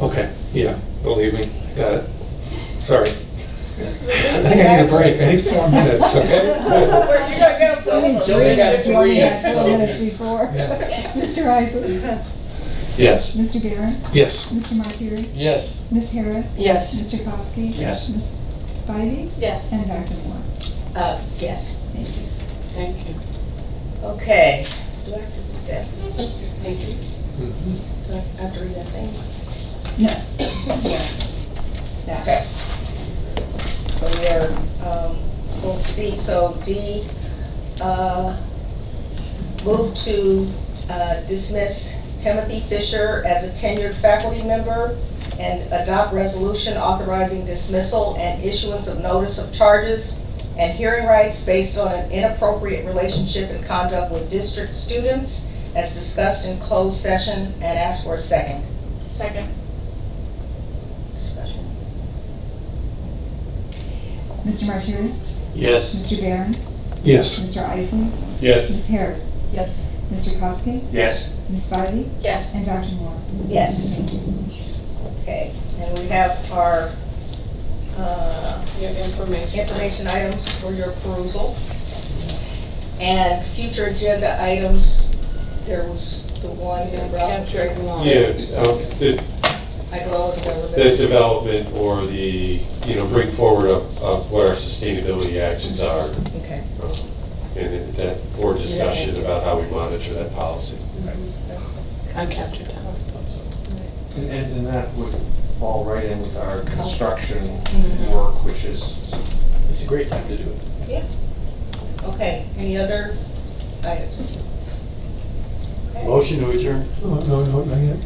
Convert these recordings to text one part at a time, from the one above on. Okay, yeah, believe me, got it. Sorry. I think I need a break, I need four minutes, okay? Well, you're gonna get a phone Only call. Julie got If you want three, me to- so- Well, before. Yeah. Mr. Isaac, Yes. Mr. Garen, Yes. Mr. Martyri, Yes. Ms. Harris. Yes. Mr. Kowski. Yes. Ms. Spivey, Yes. and Dr. Moore. Uh, yes, Thank you. Thank you. okay. Do I have to read that? Thank you. Mhm. Do I have to read that thing? No, Okay. So we are, um, we'll see, so D, uh, move to uh, dismiss Timothy Fisher as a tenured faculty member and adopt resolution authorizing dismissal and issuance of notice of charges and hearing rights based on an inappropriate relationship and conduct with district students as discussed in closed session and ask for a second. Second. Discussion. Mr. Martyri, Yes. Mr. Garen, Yes. Mr. Isaac, Yes. Ms. Harris, Yes. Mr. Kowski, Yes. Ms. Spivey, Yes. and Dr. Moore. Yes. Okay, and we have our uh, Your information. information items for your perusal. And future agenda items, there was the one Yeah, about, Capture it long. Yeah, um, the, I know I was available. the development or the, you know, bring forward of, of what our sustainability actions are, Okay, um, and then that board discussion about how we monitor that policy. I'm captured down. And, and then that would fall right in with our construction Mhm. work, which is It's a great time to do it. okay, any other items? Okay. Motion to adjourn. Oh, No, no, not yet.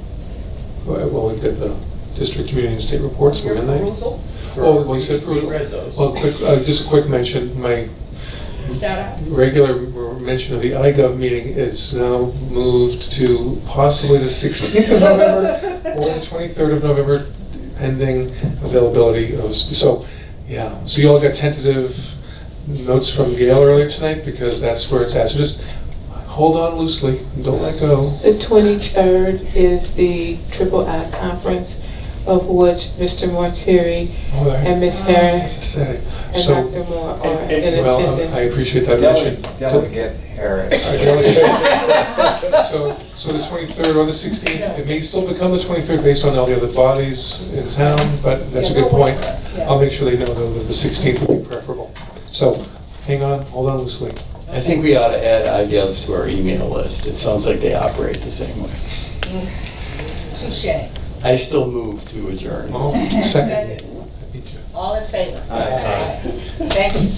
Well, well, we've got the district, community, and state reports, Your we're in there. perusal, Oh, well, you said We approval. read those. Well, quick, uh, just a quick mention, my shout out. regular mention of the iGov meeting is now moved to possibly the 16th of November or the 23rd of November, pending availability of, so, yeah. So you all got tentative notes from Gail earlier tonight, because that's where it's at. So just hold on loosely, don't let go. The 23rd is the Triple I Conference, of which Mr. Mortieri All right. and Ms. Ah. That's Harris exciting. and So, Dr. Moore are And- in and- well, I attendance. appreciate that mention. delicate, delicate Harris. Our delegate. So, so the twenty-third or the sixteenth, it may still become the twenty-third based on all the other bodies in town, but that's a Yeah, good we'll wait point. for us, yeah. I'll make sure they know though that the sixteenth would be preferable. So, hang on, hold on loosely. I think we ought to add IGOVs to our email list. It sounds like they operate the same way. Touche, I still move to adjourn. Oh, second. all in favor? Aye. Thank you.